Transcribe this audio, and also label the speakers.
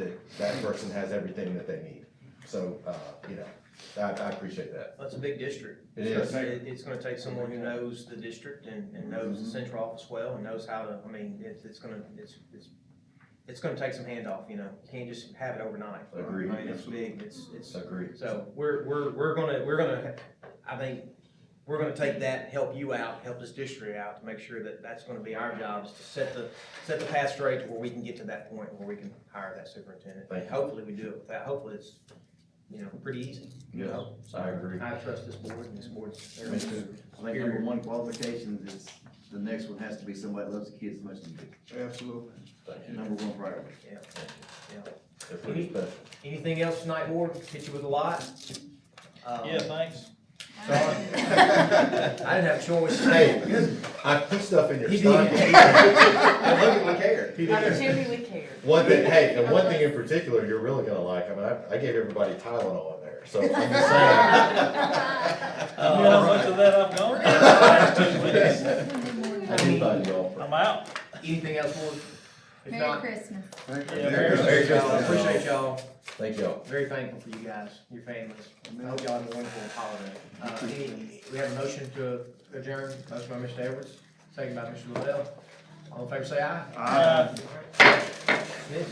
Speaker 1: that that person has everything that they need. So, uh, you know, I, I appreciate that.
Speaker 2: That's a big district.
Speaker 1: It
Speaker 2: It's
Speaker 1: is. Mm-hmm.
Speaker 2: gonna take- It's gonna take someone who knows the district and, and knows the central office well and knows how to, I mean, it's, it's gonna, it's, it's, it's gonna take some handoff, you know, you can't just have it overnight.
Speaker 1: Agreed.
Speaker 2: I mean, it's big, it's, it's,
Speaker 1: Agree.
Speaker 2: so we're, we're, we're gonna, we're gonna, I think, we're gonna take that, help you out, help this district out to make sure that that's gonna be our job is to set the, set the path straight to where we can get to that point where we can hire that superintendent.
Speaker 1: Thank you.
Speaker 2: Hopefully we do it with that. Hopefully it's, you know, pretty easy. you
Speaker 1: Yes,
Speaker 2: know? So
Speaker 1: I agree.
Speaker 2: I trust this board and this board.
Speaker 3: Me too.
Speaker 4: I think number one qualifications is, the next one has to be somebody that loves the kids as much as you
Speaker 3: Absolutely.
Speaker 1: Thank
Speaker 4: do.
Speaker 1: you.
Speaker 4: Number one priority.
Speaker 1: They're pretty special.
Speaker 2: Anything else tonight, board? Hit you with a lot? Um,
Speaker 5: Yeah, thanks.
Speaker 2: I didn't have a choice.
Speaker 1: Hey, I put stuff in your
Speaker 2: He
Speaker 1: stomach. I look
Speaker 2: did.
Speaker 1: at my care. He
Speaker 6: Not
Speaker 1: did.
Speaker 6: Jimmy, we care.
Speaker 1: One thing, hey, and one thing in particular, you're really gonna like, I mean, I, I gave everybody Tylenol in there, so I'm just saying.
Speaker 5: You know how much of that I've gone? through the last two weeks?
Speaker 1: I do find you all.
Speaker 5: I'm out.
Speaker 2: Anything else, board? If
Speaker 7: Merry
Speaker 2: not,
Speaker 7: Christmas.
Speaker 3: Thank you.
Speaker 5: Yeah,
Speaker 1: Merry
Speaker 2: Merry Christmas.
Speaker 1: Christmas.
Speaker 2: Appreciate y'all.
Speaker 1: Thank y'all.
Speaker 2: Very thankful for you guys, your families. I hope y'all have a wonderful holiday. Uh, any- we have a motion to adjourn, motion by Mr. Edwards, second by Mr. Lavelle. All in favor, say aye.
Speaker 5: Uh,
Speaker 2: Yes.